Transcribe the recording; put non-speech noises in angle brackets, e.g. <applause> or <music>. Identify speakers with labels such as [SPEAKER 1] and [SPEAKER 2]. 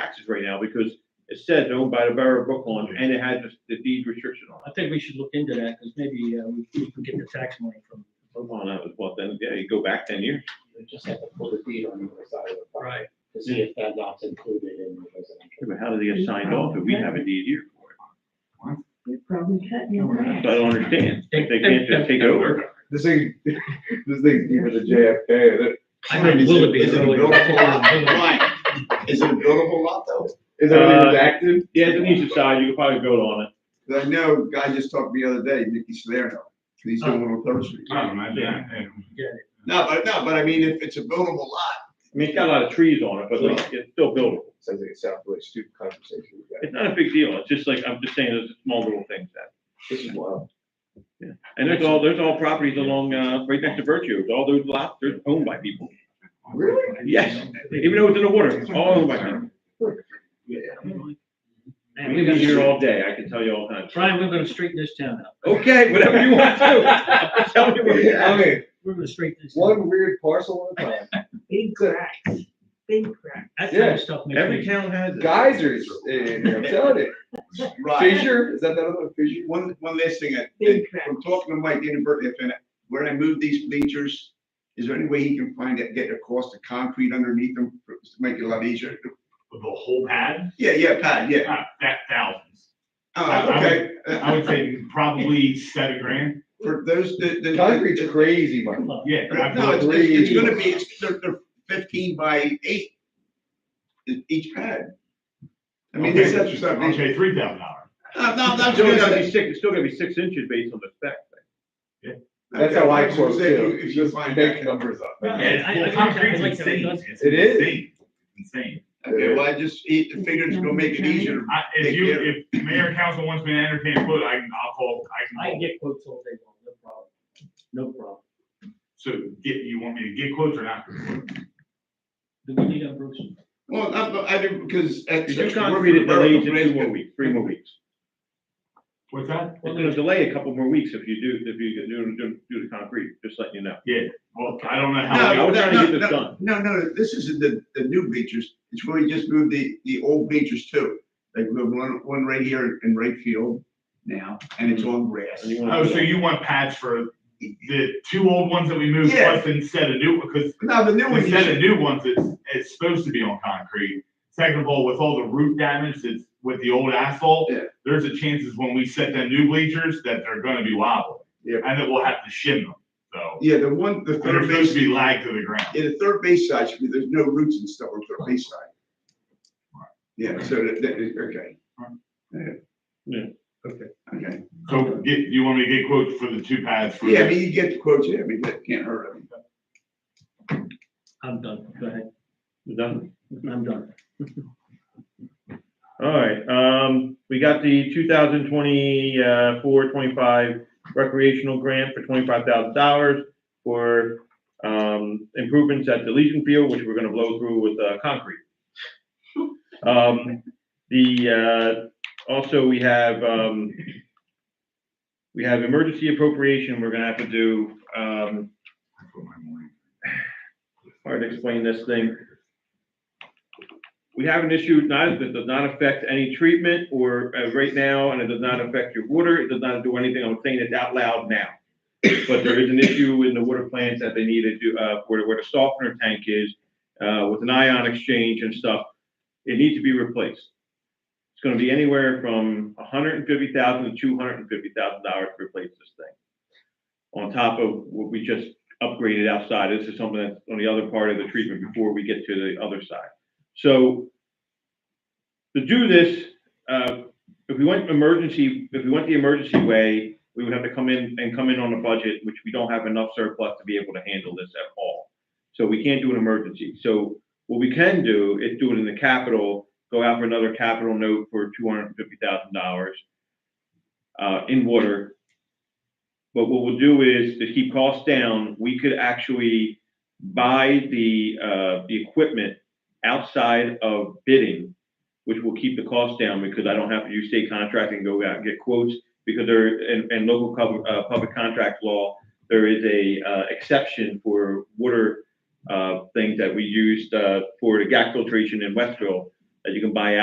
[SPEAKER 1] taxes right now because it says owned by the Borough of Brooklyn and it has the deed restriction on it.
[SPEAKER 2] I think we should look into that, because maybe uh, we we can get the tax money from.
[SPEAKER 1] Brooklyn, that was what, then, yeah, you go back ten years.
[SPEAKER 3] You just have to pull the deed on the other side of the property
[SPEAKER 2] Right.
[SPEAKER 3] to see if that lot's included in the
[SPEAKER 1] Yeah,
[SPEAKER 3] residential.
[SPEAKER 1] But how did they get signed off if we have a deed here for it?
[SPEAKER 4] We probably had. you
[SPEAKER 1] That's what I don't understand. If They can't just take over.
[SPEAKER 5] This thing, <laughs> this thing's deeper than JFK.
[SPEAKER 2] I mean, will it be?
[SPEAKER 5] Is it buildable?
[SPEAKER 3] Is it a buildable lot though?
[SPEAKER 5] Is it
[SPEAKER 1] Uh,
[SPEAKER 5] redacted?
[SPEAKER 1] Yeah, it's an east side, you could probably build on it.
[SPEAKER 5] 'Cause I know, a guy just talked the other day, Nicky Salerno, he's doing one on Third Street.
[SPEAKER 6] Oh, my God.
[SPEAKER 5] No, but, no, but I mean, if it's a buildable lot.
[SPEAKER 1] I mean, it's got a lot of trees on it, but like, it's still buildable.
[SPEAKER 5] Sounds like a Southwest student conversation.
[SPEAKER 1] It's not a big deal. It's just like, I'm just saying, there's small little things that.
[SPEAKER 5] This is wild.
[SPEAKER 1] And there's all, there's all properties along, uh, right next to Virtue. All those lots, they're owned by people.
[SPEAKER 5] Really?
[SPEAKER 1] Yes, even though it's in the water, it's all owned by people.
[SPEAKER 2] Man,
[SPEAKER 1] We
[SPEAKER 2] we've
[SPEAKER 1] can
[SPEAKER 2] been
[SPEAKER 1] be here
[SPEAKER 2] here all.
[SPEAKER 1] all day. I can tell you all kinds.
[SPEAKER 2] Brian, we're gonna straighten this town out.
[SPEAKER 1] Okay, whatever you want to. <laughs> Tell me what you
[SPEAKER 5] I
[SPEAKER 1] want.
[SPEAKER 5] mean,
[SPEAKER 2] We're gonna straighten this. out.
[SPEAKER 5] one weird parcel at a time.
[SPEAKER 4] Big cracks, big cracks.
[SPEAKER 2] That kind
[SPEAKER 5] yeah.
[SPEAKER 2] of stuff
[SPEAKER 1] Every
[SPEAKER 2] makes me.
[SPEAKER 1] town has it.
[SPEAKER 5] Geysers, in there, I'm telling you.
[SPEAKER 7] Right.
[SPEAKER 5] Fisher, is that that other Fisher?
[SPEAKER 7] One, one last thing, I,
[SPEAKER 4] Big
[SPEAKER 7] I'm talking to Mike inadvertently, if, when I move these bleachers, is there any way he can find it, get across the concrete underneath them, for- to make it a lot easier?
[SPEAKER 6] The whole pad,
[SPEAKER 7] Yeah, yeah, Pat, yeah,
[SPEAKER 6] Ah, that thousands.
[SPEAKER 7] oh, okay,
[SPEAKER 6] I
[SPEAKER 7] Uh,
[SPEAKER 6] would say probably seven grand.
[SPEAKER 7] for those, the, the.
[SPEAKER 5] Concrete's crazy, man.
[SPEAKER 2] Come on.
[SPEAKER 6] Yeah. I
[SPEAKER 7] No, it's,
[SPEAKER 6] believe-
[SPEAKER 7] it's it's gonna be, it's, they're, they're fifteen by eight, e- each pad. I mean,
[SPEAKER 6] Okay,
[SPEAKER 7] this is something,
[SPEAKER 6] Okay, three thousand dollars.
[SPEAKER 7] no, no,
[SPEAKER 1] It's
[SPEAKER 7] that's
[SPEAKER 1] still gonna
[SPEAKER 7] good.
[SPEAKER 1] be six, it's still gonna be six inches based on the spec.
[SPEAKER 5] That's how I quote
[SPEAKER 7] If you-
[SPEAKER 5] too,
[SPEAKER 7] If you
[SPEAKER 5] just
[SPEAKER 7] find
[SPEAKER 5] make
[SPEAKER 7] that.
[SPEAKER 5] numbers up.
[SPEAKER 2] Yeah,
[SPEAKER 6] Yeah,
[SPEAKER 2] I- I
[SPEAKER 6] well,
[SPEAKER 2] like that. I
[SPEAKER 6] concrete's
[SPEAKER 2] like that. It
[SPEAKER 6] insane.
[SPEAKER 2] does-
[SPEAKER 6] It's
[SPEAKER 5] It is.
[SPEAKER 6] insane. It's Insane.
[SPEAKER 7] Okay, well, I just, it, figured it's gonna make it easier.
[SPEAKER 6] I, if you, if mayor and council wants me to entertain a quote, I can, I'll call, I can
[SPEAKER 2] I can
[SPEAKER 6] call.
[SPEAKER 2] get quotes all day long, no problem. No problem.
[SPEAKER 6] So get, you want me to get quotes or not?
[SPEAKER 2] Do we need a Bruce?
[SPEAKER 7] Well, I, but I do, because.
[SPEAKER 1] If you concrete it, delays it two more weeks, three more weeks.
[SPEAKER 6] What's that?
[SPEAKER 1] It's gonna delay a couple more weeks if you do, if you do, do, do the concrete, just letting you know.
[SPEAKER 6] Well, I don't know how.
[SPEAKER 1] I
[SPEAKER 7] No,
[SPEAKER 1] was
[SPEAKER 7] no,
[SPEAKER 1] trying to
[SPEAKER 7] no,
[SPEAKER 1] get this
[SPEAKER 7] no,
[SPEAKER 1] done.
[SPEAKER 7] no, no, this isn't the, the new bleachers, it's where you just moved the, the old bleachers too. Like, we have one, one right here in right field now, and it's on grass.
[SPEAKER 1] And you wanna-
[SPEAKER 6] Oh, so you want pads for the two old ones that we moved
[SPEAKER 7] Yeah.
[SPEAKER 6] plus instead of new, because
[SPEAKER 7] No, the new one, you
[SPEAKER 6] instead of
[SPEAKER 7] should-
[SPEAKER 6] new ones, it's, it's supposed to be on concrete. Second of all, with all the root damage that's with the old asphalt,
[SPEAKER 7] Yeah.
[SPEAKER 6] there's a chances when we set them new bleachers that they're gonna be wobbly.
[SPEAKER 7] Yeah.
[SPEAKER 6] And that we'll have to shim them, so.
[SPEAKER 7] yeah, the one, the
[SPEAKER 6] They're
[SPEAKER 7] third
[SPEAKER 6] supposed
[SPEAKER 7] base,
[SPEAKER 6] to be lagged to the ground.
[SPEAKER 7] yeah, the third base side, should be- there's no roots and stuff on the third base side. Yeah, so that, that is, okay.
[SPEAKER 6] Right.
[SPEAKER 7] Yeah.
[SPEAKER 1] Yeah.
[SPEAKER 7] Okay, okay.
[SPEAKER 6] So get, you want me to get quotes for the two pads for
[SPEAKER 7] Yeah, I
[SPEAKER 6] the
[SPEAKER 7] mean, you get the quotes, yeah, I mean, that can't hurt, I mean.
[SPEAKER 2] I'm done. Go ahead.
[SPEAKER 1] We're done.
[SPEAKER 2] I'm done.
[SPEAKER 1] All right, um, we got the 2024-25 recreational grant for twenty-five thousand dollars for, um, improvements at the Legion Field, which we're gonna blow through with, uh, concrete. Um, the, uh, also we have, um, we have emergency appropriation, we're gonna have to do, um, <sighs> hard to explain this thing. We have an issue, not, that does not affect any treatment or, uh, right now, and it does not affect your water, it does not do anything, I'm saying it out loud now. But there is an issue in the water plants that they need to do, uh, where, where the softener tank is, uh, with an ion exchange and stuff, it needs to be replaced. It's gonna be anywhere from hundred and fifty thousand to two hundred and fifty thousand dollars to replace this thing. On top of what we just upgraded outside, this is something that's on the other part of the treatment before we get to the other side. So to do this, uh, if we went emergency, if we went the emergency way, we would have to come in and come in on a budget, which we don't have enough surplus to be able to handle this at all. So we can't do an emergency. So what we can do is do it in the capital, go out for another capital note for two hundred and fifty thousand dollars uh, in water. But what we'll do is to keep costs down, we could actually buy the, uh, the equipment outside of bidding, which will keep the cost down because I don't have to use state contract and go out and get quotes because there, and, and local public, uh, public contract law, there is a, uh, exception for water, uh, things that we used, uh, for the gas filtration in Westville that you can buy out.